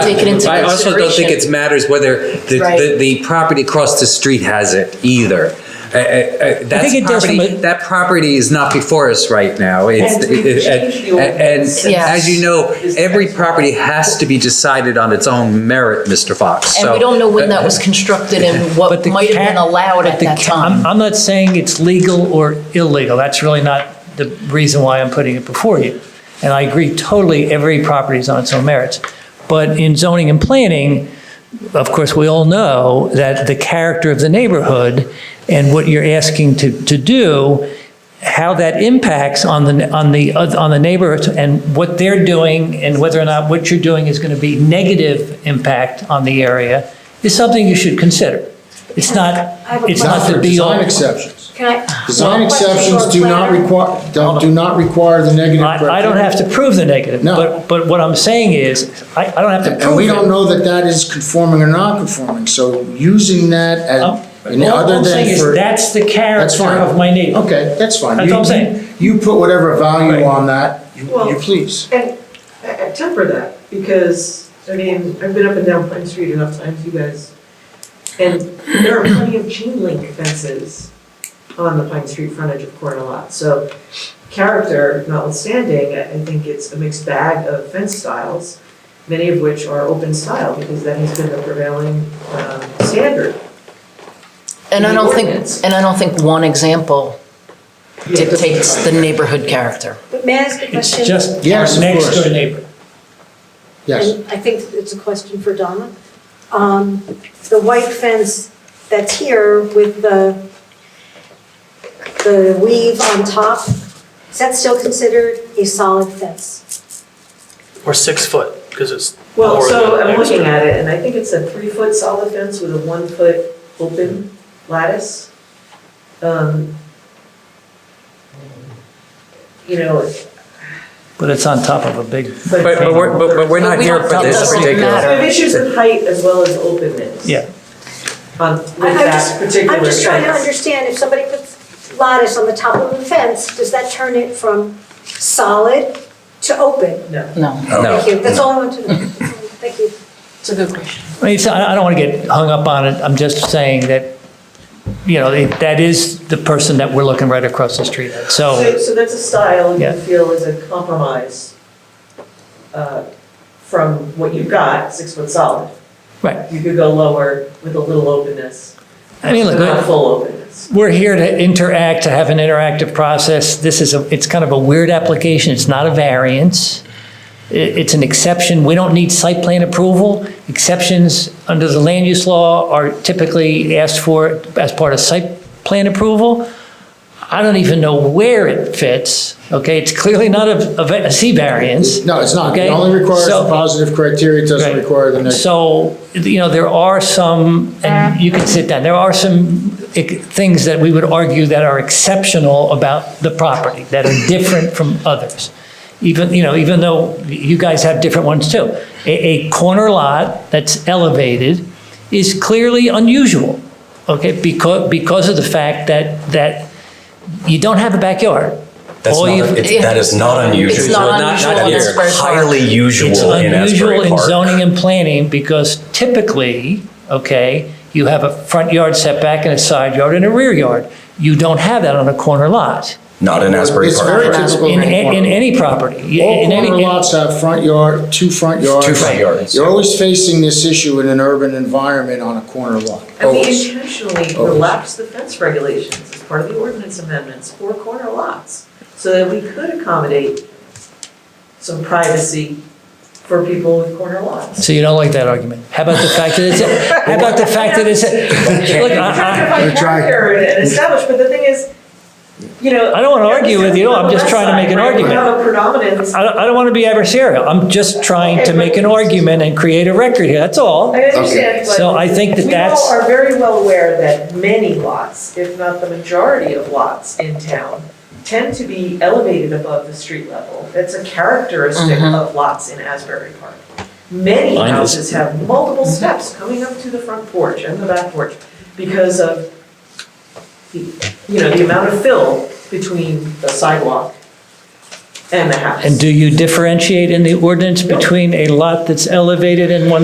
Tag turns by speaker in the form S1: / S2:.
S1: Take it into
S2: I also don't think it
S1: consideration.
S2: matters whether the, the,
S1: Right.
S2: the property across the street has it either. I- I- I- That's
S3: it does from
S2: property,
S3: a-
S2: that property is not before us right now. It's,
S4: And we've
S2: it- it-
S4: changed the
S2: and,
S4: ordinance.
S2: and
S1: Yes.
S2: as you know, every property has to be decided on its own merit, Mr. Fox.
S1: And
S2: So-
S1: we don't know when that was constructed and what
S3: But the
S1: might have been
S3: ca-
S1: allowed
S3: but
S1: at
S3: the
S1: that
S3: ca- I'm-
S1: time.
S3: I'm not saying it's legal or illegal. That's really not the reason why I'm putting it before you. And I agree totally, every property is on its own merits. But in zoning and planning, of course, we all know that the character of the neighborhood and what you're asking to, to do, how that impacts on the, on the, oth- on the neighborhood and what they're doing and whether or not what you're doing is going to be negative impact on the area is something you should consider. It's not,
S5: I have a
S3: it's
S5: question.
S3: not the
S6: for
S3: be all.
S6: Design exceptions.
S5: Can I?
S6: Design
S5: Well, question
S6: exceptions
S5: for
S6: do not
S5: planner.
S6: require, don't, do not require the negative criteria.
S3: I, I don't have to prove the negative,
S6: No.
S3: but, but what I'm saying is, I, I don't have to
S6: And
S3: prove
S6: we
S3: it.
S6: don't know that that is conforming or non-conforming, so using that
S3: Um,
S6: as, and
S3: All
S6: other
S3: I'm saying
S6: than
S3: is,
S6: for.
S3: that's the
S6: That's
S3: character
S6: fine.
S3: of my neighborhood.
S6: Okay, that's fine.
S3: That's
S6: You-
S3: what I'm saying.
S6: You put whatever
S3: Right.
S6: value on that, you
S4: Well-
S6: you please.
S4: And I I temper that, because, I mean, I've been up and down Pine Street enough times, you guys, and there are plenty of chain link fences on the Pine Street frontage of Corner Lot, so character notwithstanding, I I think it's a mixed bag of fence styles, many of which are open style, because that has been the prevailing um, standard.
S1: And I don't think,
S4: Ordinance.
S1: and I don't think one example
S4: You have to-
S1: dictates the neighborhood character.
S5: But may I ask a
S3: It's
S5: question?
S3: just our
S6: Yes, of
S3: next
S6: course.
S3: door neighbor.
S6: Yes,
S5: And I think it's a question for Donna. Um, The white fence that's here with the, the weave on top, is that still considered a solid fence?
S7: Or six foot, because it's.
S4: Well,
S7: lower
S4: so
S7: than
S4: I'm
S7: extra.
S4: looking at it, and I think it's a three-foot solid fence with a one-foot open lattice. Um, You know,
S3: But it's on top of a big,
S4: but.
S2: But, but we're, but but we're
S1: But
S2: not
S1: we
S2: here
S1: don't-
S2: for
S1: that
S2: this
S1: doesn't
S2: particular.
S1: matter.
S4: So we have issues with height as well as openness.
S3: yeah.
S4: On, with
S5: I- I'm
S4: that
S5: just-
S4: particular
S5: I'm just trying to
S4: fence.
S5: understand, if somebody puts lattice on the top of the fence, does that turn it from solid to open?
S4: No.
S1: No,
S2: No.
S5: Thank you, that's all I want to know. Thank you.
S1: it's a good question.
S3: I mean, it's, I I don't want to get hung up on it, I'm just saying that, you know, it- that is the person that we're looking right across the street at,
S4: So,
S3: so.
S4: so that's a style you
S3: Oh. Yeah.
S4: feel is a compromise uh, from what you've got, six-foot solid.
S3: Right.
S4: You could go lower with a little openness,
S3: I mean,
S4: but
S3: look,
S4: not
S3: I-
S4: full openness.
S3: we're here to interact, to have an interactive process. This is, a it's kind of a weird application, it's not a variance. I- It's an exception, we don't need site plan approval. Exceptions under the land use law are typically asked for as part of site plan approval. I don't even know where it fits, okay? It's clearly not a, a va- a C variance.
S6: no, it's not. It
S3: Okay.
S6: only requires
S3: So-
S6: the positive criteria, it doesn't
S3: Right.
S6: require the negative.
S3: So, you know, there are some, and you can sit down, there are some ec- things that we would argue that are exceptional about the property, that are different from others. Even, you know, even though you guys have different ones too. A, a corner lot that's elevated is clearly unusual, okay? Because, because of the fact that, that you don't have a backyard.
S8: That's
S3: All
S8: not,
S3: you've-
S8: it's, that is not unusual.
S1: It's not
S2: not
S1: unusual on
S2: here.
S1: Asbury Park.
S8: It's highly usual
S3: It's
S8: in Asbury
S3: unusual in
S8: Park.
S3: zoning and planning because typically, okay, you have a front yard setback and a side yard and a rear yard. You don't have that on a corner lot,
S8: Not in Asbury
S6: It's
S8: Park.
S6: very typical.
S3: in,
S6: of any
S3: in
S6: corner.
S3: any property.
S6: All
S3: in any-
S6: corner lots have front yard, two front yards.
S8: Two front yards.
S6: You're always facing this issue in an urban environment on a corner lot.
S4: And we
S6: Always.
S4: intentionally
S6: Always.
S4: relaxed the fence regulations as part of the ordinance amendments for corner lots, so that we could accommodate some privacy for people with corner lots.
S3: So you don't like that argument. How about the fact that it's, a- how about the fact that it's, a- look,
S4: We're trying to
S3: I, I-
S4: find
S6: We're trying-
S4: character and- and establish, but the thing is, you know.
S3: I don't wanna argue with you, I'm
S4: On the
S3: just
S4: left
S3: trying to
S4: side,
S3: make an
S4: right,
S3: argument.
S4: We have a predominance.
S3: I don't, I don't want to be adversarial. I'm just trying to make an argument and create a record here, that's all.
S4: I understand, but.
S3: So I think that that's-
S4: We all are very well aware that many lots, if not the majority of lots in town, tend to be elevated above the street level. That's a characteristic of lots in Asbury Park. Many
S2: Mine is-
S4: houses have multiple steps coming up to the front porch and the back porch because of, the you know, the amount of fill between the sidewalk and the house.
S3: And do you differentiate in the ordinance between a lot that's elevated and one